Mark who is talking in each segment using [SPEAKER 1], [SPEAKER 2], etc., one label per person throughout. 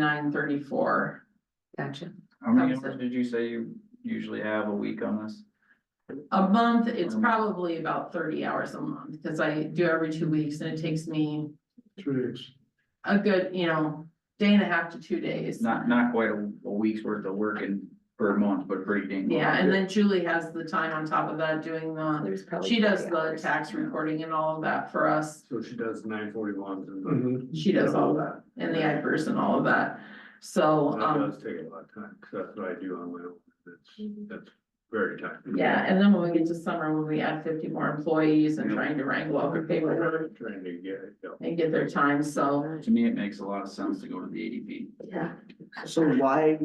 [SPEAKER 1] nine thirty-four.
[SPEAKER 2] Gotcha.
[SPEAKER 3] How many
[SPEAKER 1] Sounds
[SPEAKER 3] hours did you say you usually have a week on this?
[SPEAKER 1] A month, it's
[SPEAKER 4] Um.
[SPEAKER 3] Mhm.
[SPEAKER 1] probably about thirty hours a month, because I do every two weeks and it takes me
[SPEAKER 4] Two days.
[SPEAKER 1] a good, you know, day and a half to two days.
[SPEAKER 3] Not, not quite a, a week's worth of work in, for a month, but pretty dang. close.
[SPEAKER 1] Yeah, and then Julie has the time on top of that doing
[SPEAKER 5] Um,
[SPEAKER 1] the,
[SPEAKER 2] There's probably.
[SPEAKER 1] she does
[SPEAKER 2] 40
[SPEAKER 1] the
[SPEAKER 2] hours.
[SPEAKER 1] tax reporting and all of that for us.
[SPEAKER 4] So she does nine forty ones
[SPEAKER 6] Mm-hmm.
[SPEAKER 4] and.
[SPEAKER 1] She does all that and the IFRS and all of that. So,
[SPEAKER 4] That
[SPEAKER 1] um,
[SPEAKER 4] does take a lot of time, 'cause that's what I do on my own, that's, that's very time.
[SPEAKER 1] yeah, and then when we get to summer, when we add fifty more employees and trying to wrangle all the paperwork
[SPEAKER 4] Trying to get it, done.
[SPEAKER 1] and get their time, so.
[SPEAKER 3] To me, it makes a lot of sense to go to the ADP.
[SPEAKER 2] Yeah,
[SPEAKER 6] So why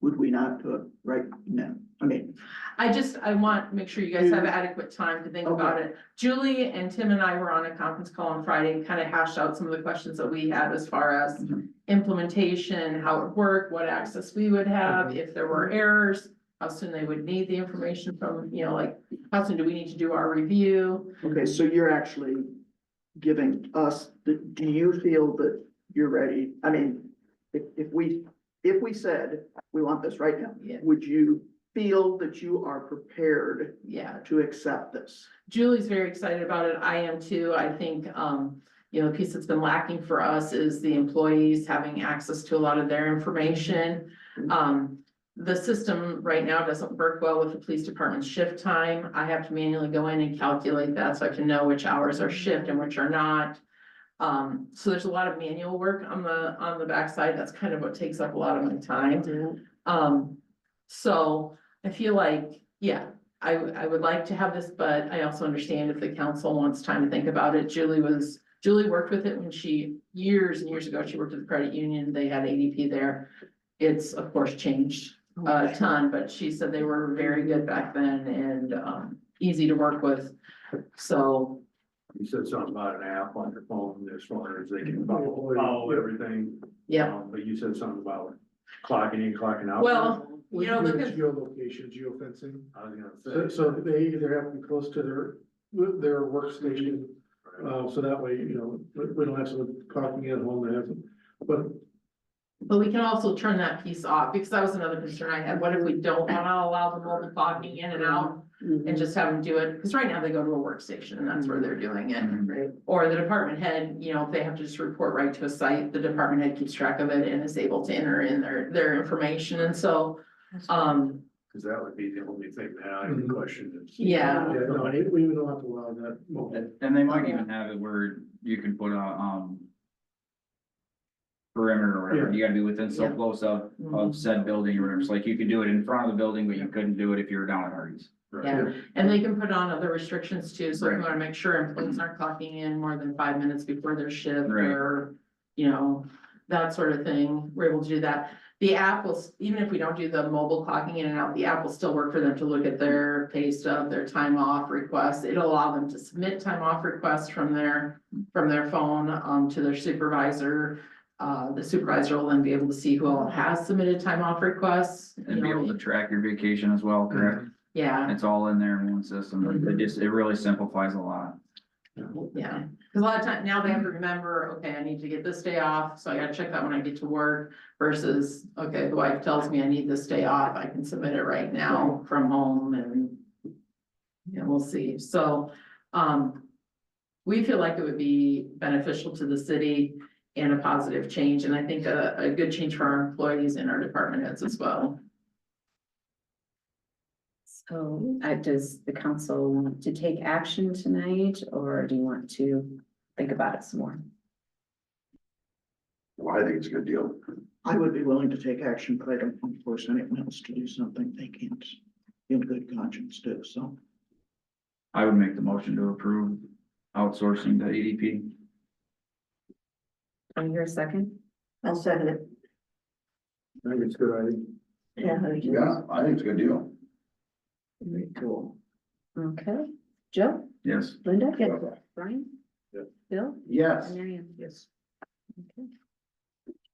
[SPEAKER 6] would we not do it right now? I mean,
[SPEAKER 1] I just, I want, make sure you guys have adequate time to think about it. Julie and Tim and I were on a conference call on Friday, and kind of hashed out some of the questions that we had as far as
[SPEAKER 3] Mhm.
[SPEAKER 1] implementation, how it worked, what access we would have, if there were errors, how soon they would need the information from, you know, like, how soon do we need to do our review?
[SPEAKER 6] okay, so you're actually giving us, the do you feel that you're ready? I mean, if, if we, if we said, we want this right now,
[SPEAKER 1] Yeah.
[SPEAKER 6] would you feel that you are prepared
[SPEAKER 1] Yeah,
[SPEAKER 6] to accept this?
[SPEAKER 1] Julie's very excited about it. I am too. I think, um, you know, the piece that's been lacking for us is the employees having access to a lot of their information. Um, the system right now doesn't work well with the police department's shift time. I have to manually go in and calculate that so I can know which hours are shift and which are not. Um, so there's a lot of manual work on the, on the backside. That's kind of what takes up a lot of my time. Um, so I feel like, yeah, I, w- I would like to have this, but I also understand if the council wants time to think about it. Julie was, Julie worked with it when she, years and years ago, she worked at the credit union, they had ADP there. It's of course changed
[SPEAKER 5] Oh,
[SPEAKER 2] Uh,
[SPEAKER 1] a ton, but she said they were very good back then and, um, easy to work with. So,
[SPEAKER 4] you said something about an app on your phone, as far as they can follow, follow everything.
[SPEAKER 1] Oh, yeah,
[SPEAKER 4] Um, But you said something about clocking in, clocking out.
[SPEAKER 1] well, you
[SPEAKER 7] We
[SPEAKER 1] know,
[SPEAKER 7] do
[SPEAKER 1] look
[SPEAKER 7] the
[SPEAKER 1] at,
[SPEAKER 7] geolocation, geofencing,
[SPEAKER 4] I was
[SPEAKER 7] so,
[SPEAKER 4] gonna say.
[SPEAKER 7] so they either have to be close to their, their workstation, uh, so that way, you know, we, we don't have someone clocking at home that has, but
[SPEAKER 1] but we can also turn that piece off, because that was another concern I had. What if we don't wanna allow the mobile clocking in and out? and just have them do it, because right now they go to a workstation and that's where they're doing it. Or the department head, you know, if they have to just report right to a site, the department head keeps track of it and is able to enter in their, their information, and so, um,
[SPEAKER 4] Cause that would be the only thing that I would
[SPEAKER 7] Mhm.
[SPEAKER 4] question is.
[SPEAKER 1] yeah.
[SPEAKER 7] Yeah, no, I- we don't have to allow that. mobile.
[SPEAKER 3] And and they might even have it where you can put a, um. Perimeter or whatever, you gotta be within so
[SPEAKER 1] Yeah.
[SPEAKER 3] close of,
[SPEAKER 1] Mhm.
[SPEAKER 3] of said building or whatever, so like you could do it in front of the building, but you couldn't do it if you were down in Hardee's.
[SPEAKER 4] Right.
[SPEAKER 1] Yeah, and they can put on other restrictions too, so if you
[SPEAKER 3] Right.
[SPEAKER 1] wanna make sure employees aren't clocking in more than five minutes before their shift
[SPEAKER 3] Right.
[SPEAKER 1] or. You know, that sort of thing, we're able to do that. The app will, s- even if we don't do the mobile clocking in and out, the app will still work for them to look at their pay stub, their time off requests. It'll allow them to submit time off requests from their, from their phone, um, to their supervisor. Uh, the supervisor will then be able to see who all has submitted time off requests. you
[SPEAKER 3] And be
[SPEAKER 1] know,
[SPEAKER 3] able to track your vacation as well, correct?
[SPEAKER 1] Yeah.
[SPEAKER 3] It's all in there in one system, it just, it really simplifies a lot.
[SPEAKER 2] um,
[SPEAKER 1] Yeah, cause a lot of time, now they have to remember, okay, I need to get this day off, so I gotta check that when I get to work. Versus, okay, the wife tells me I need this day off, I can submit it right now from home and. Yeah, we'll see, so, um. We feel like it would be beneficial to the city and a positive change, and I think a, a good change for our employees and our department heads as well.
[SPEAKER 2] So, uh, does the council want to take action tonight, or do you want to think about it some more?
[SPEAKER 8] Well, I think it's a good deal.
[SPEAKER 6] I would be willing to take action, but I don't want to force anyone else to do something they can't in good conscience do, so.
[SPEAKER 3] I would make the motion to approve outsourcing to ADP.
[SPEAKER 2] Can I hear a second?
[SPEAKER 5] I'll second it.
[SPEAKER 4] I think it's a good idea.
[SPEAKER 5] Yeah, I think you-
[SPEAKER 8] Yeah, I think it's a good deal.
[SPEAKER 2] Very cool. Okay, Joe,
[SPEAKER 3] Yes.
[SPEAKER 2] Linda?
[SPEAKER 5] Yeah.
[SPEAKER 2] Brian?
[SPEAKER 4] Yeah.
[SPEAKER 2] Bill?
[SPEAKER 8] Yes.
[SPEAKER 2] And Mary Ann? Yes.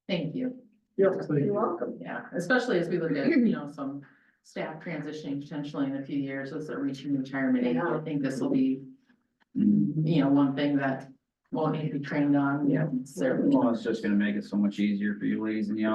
[SPEAKER 1] Thank you.
[SPEAKER 7] Yeah, thank you.
[SPEAKER 5] you're welcome.
[SPEAKER 1] Yeah, especially as we look at, you know, some staff transitioning potentially in a few years as they're reaching retirement age. I think this will be, you know, one thing that won't need to be trained on, you know, certainly.
[SPEAKER 3] Well, it's just gonna make it so much easier for you ladies and y'all.